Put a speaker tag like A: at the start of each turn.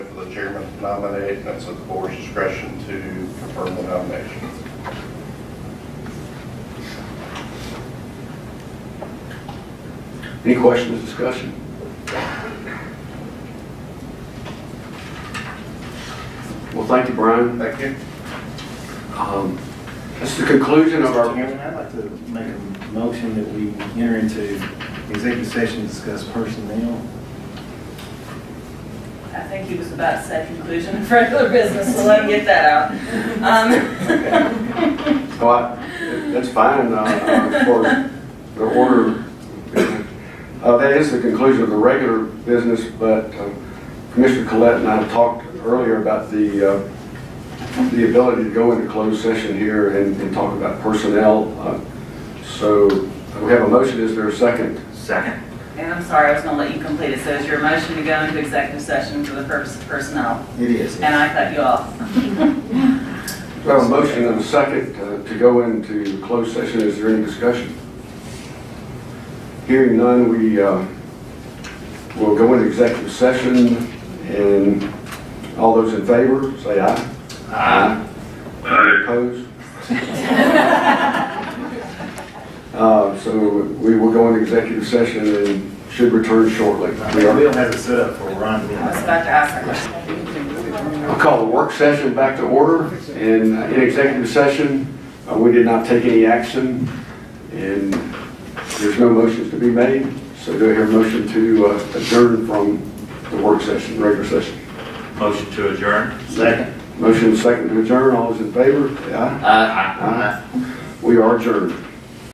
A: the chairman to nominate, and it's at the board's discretion to confirm the nomination.
B: Any questions, discussion? Well, thank you, Brian.
A: Thank you.
B: Um, This is the conclusion of
C: Mr.
B: our,
C: Chairman, I'd like to make a motion that we enter into executive session to discuss personnel.
D: I think he was about to say conclusion of regular business, so let him get that out. Um,
B: oh, I- that's fine, uh, uh, for the order. Uh, That is the conclusion of the regular business, but um, Commissioner Collette and I talked earlier about the, uh, the ability to go into closed session here and and talk about personnel. Uh, So we have a motion, is there a second?
E: Second.
D: And I'm sorry, I was gonna let you complete it, so is your motion to go into executive session for the purpose of personnel?
C: It is.
D: And I cut you off.
B: We have a motion and a second uh, to go into closed session. Is there any discussion? Hearing none, we uh, will go into executive session, and all those in favor, say aye. Any Opposed? Uh, So we will go into executive session and should return shortly. We are-
C: Bill has it set up for Ron to be
D: I was about to ask a question.
B: I'll call the work session back to order. And uh, in executive session, uh, we did not take any action, and there's no motions to be made. So do I hear a motion to uh, adjourn from the work session, regular session?
E: Motion to adjourn?
C: Second.
B: Motion second to adjourn, all those in favor, say aye.
E: Aye.
B: We are adjourned.